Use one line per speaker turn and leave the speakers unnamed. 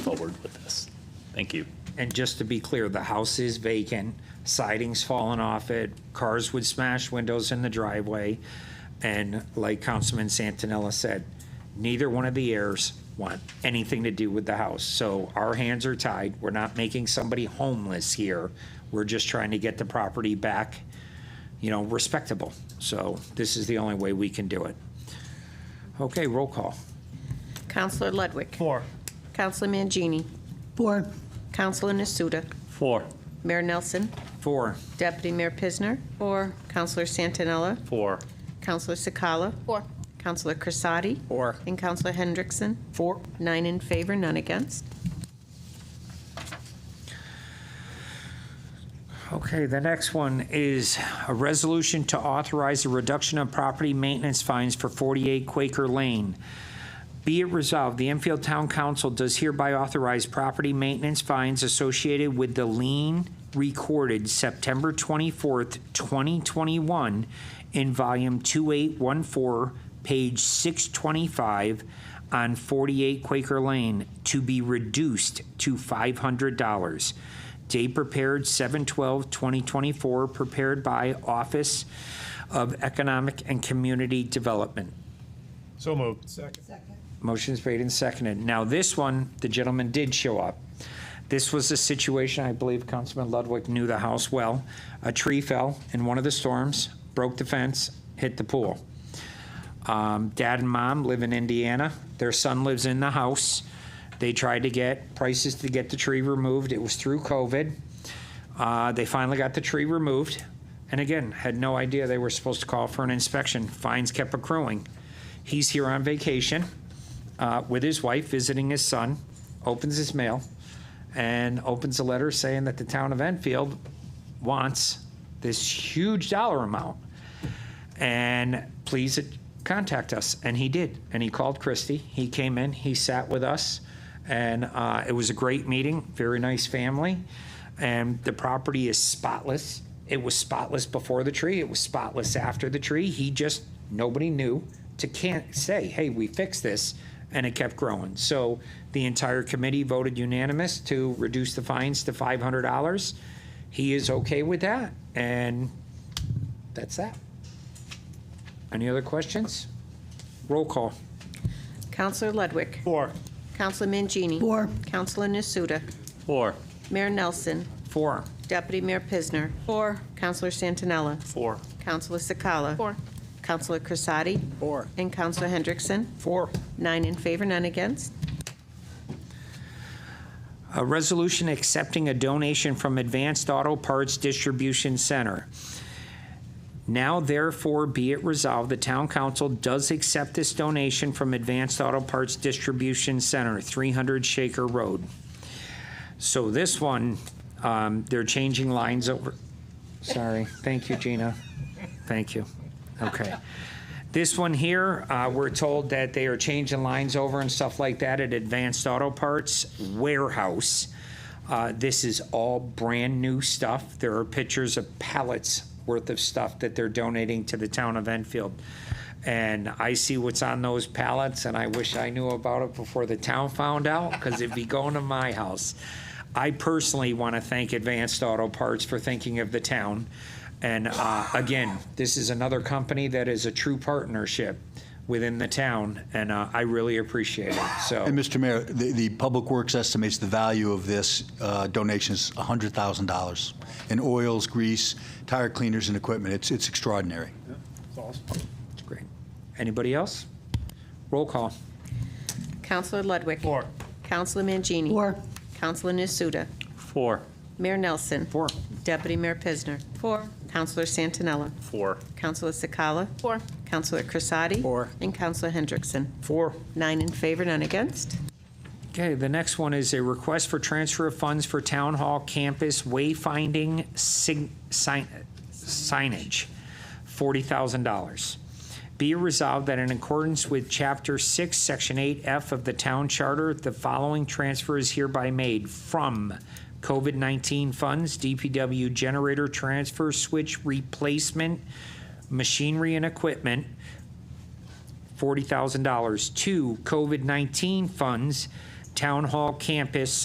forward with this. Thank you.
And just to be clear, the house is vacant, siding's fallen off it, cars would smash windows in the driveway. And like Councilman Santinella said, neither one of the heirs want anything to do with the house. So our hands are tied. We're not making somebody homeless here. We're just trying to get the property back, you know, respectable. So this is the only way we can do it. Okay, roll call.
Counselor Ludwig.
Four.
Counselor Mangini.
Four.
Counselor Nasuda.
Four.
Mayor Nelson.
Four.
Deputy Mayor Pisner. Four. Counselor Santinella.
Four.
Counselor Sikala. Four. Counselor Crisati.
Four.
And Counselor Hendrickson.
Four.
Nine in favor, none against.
Okay, the next one is a resolution to authorize a reduction of property maintenance fines for 48 Quaker Lane. Be it resolved, the Enfield Town Council does hereby authorize property maintenance fines associated with the lien recorded September 24th, 2021 in volume 2814, page 625 on 48 Quaker Lane to be reduced to $500. Date prepared 7/12/2024, prepared by Office of Economic and Community Development.
So moved. Second.
Motion's made and seconded. Now, this one, the gentleman did show up. This was a situation, I believe Councilman Ludwig knew the house well. A tree fell in one of the storms, broke the fence, hit the pool. Um, Dad and mom live in Indiana. Their son lives in the house. They tried to get prices to get the tree removed. It was through COVID. Uh, They finally got the tree removed. And again, had no idea they were supposed to call for an inspection. Fines kept accruing. He's here on vacation uh, with his wife, visiting his son, opens his mail, and opens a letter saying that the town of Enfield wants this huge dollar amount. And please contact us. And he did. And he called Christy. He came in, he sat with us, and uh, it was a great meeting, very nice family. And the property is spotless. It was spotless before the tree, it was spotless after the tree. He just, nobody knew to can't say, hey, we fixed this, and it kept growing. So the entire committee voted unanimous to reduce the fines to $500. He is okay with that, and that's that. Any other questions? Roll call.
Counselor Ludwig.
Four.
Counselor Mangini.
Four.
Counselor Nasuda.
Four.
Mayor Nelson.
Four.
Deputy Mayor Pisner. Four. Counselor Santinella.
Four.
Counselor Sikala. Four. Counselor Crisati.
Four.
And Counselor Hendrickson.
Four.
Nine in favor, none against.
A resolution accepting a donation from Advanced Auto Parts Distribution Center. Now therefore be it resolved, the town council does accept this donation from Advanced Auto Parts Distribution Center, 300 Shaker Road. So this one, um, they're changing lines over, sorry, thank you, Gina. Thank you. Okay. This one here, uh, we're told that they are changing lines over and stuff like that at Advanced Auto Parts Warehouse. Uh, This is all brand-new stuff. There are pictures of pallets worth of stuff that they're donating to the town of Enfield. And I see what's on those pallets, and I wish I knew about it before the town found out, because it'd be going to my house. I personally want to thank Advanced Auto Parts for thinking of the town. And uh, again, this is another company that is a true partnership within the town, and uh, I really appreciate it.
And
So,
Mr. Mayor, the, the Public Works estimates the value of this uh, donation is $100,000 in oils, grease, tire cleaners, and equipment. It's, it's extraordinary.
it's great. Anybody else? Roll call.
Counselor Ludwig.
Four.
Counselor Mangini.
Four.
Counselor Nasuda.
Four.
Mayor Nelson.
Four.
Deputy Mayor Pisner. Four. Counselor Santinella.
Four.
Counselor Sikala. Four. Counselor Crisati.
Four.
And Counselor Hendrickson.
Four.
Nine in favor, none against.
Okay, the next one is a request for transfer of funds for Town Hall Campus wayfinding sig- sign- signage, $40,000. Be it resolved that in accordance with Chapter 6, Section 8F of the Town Charter, the following transfer is hereby made from COVID-19 funds, DPW generator transfer switch replacement, machinery and equipment, $40,000 to COVID-19 funds, Town Hall campus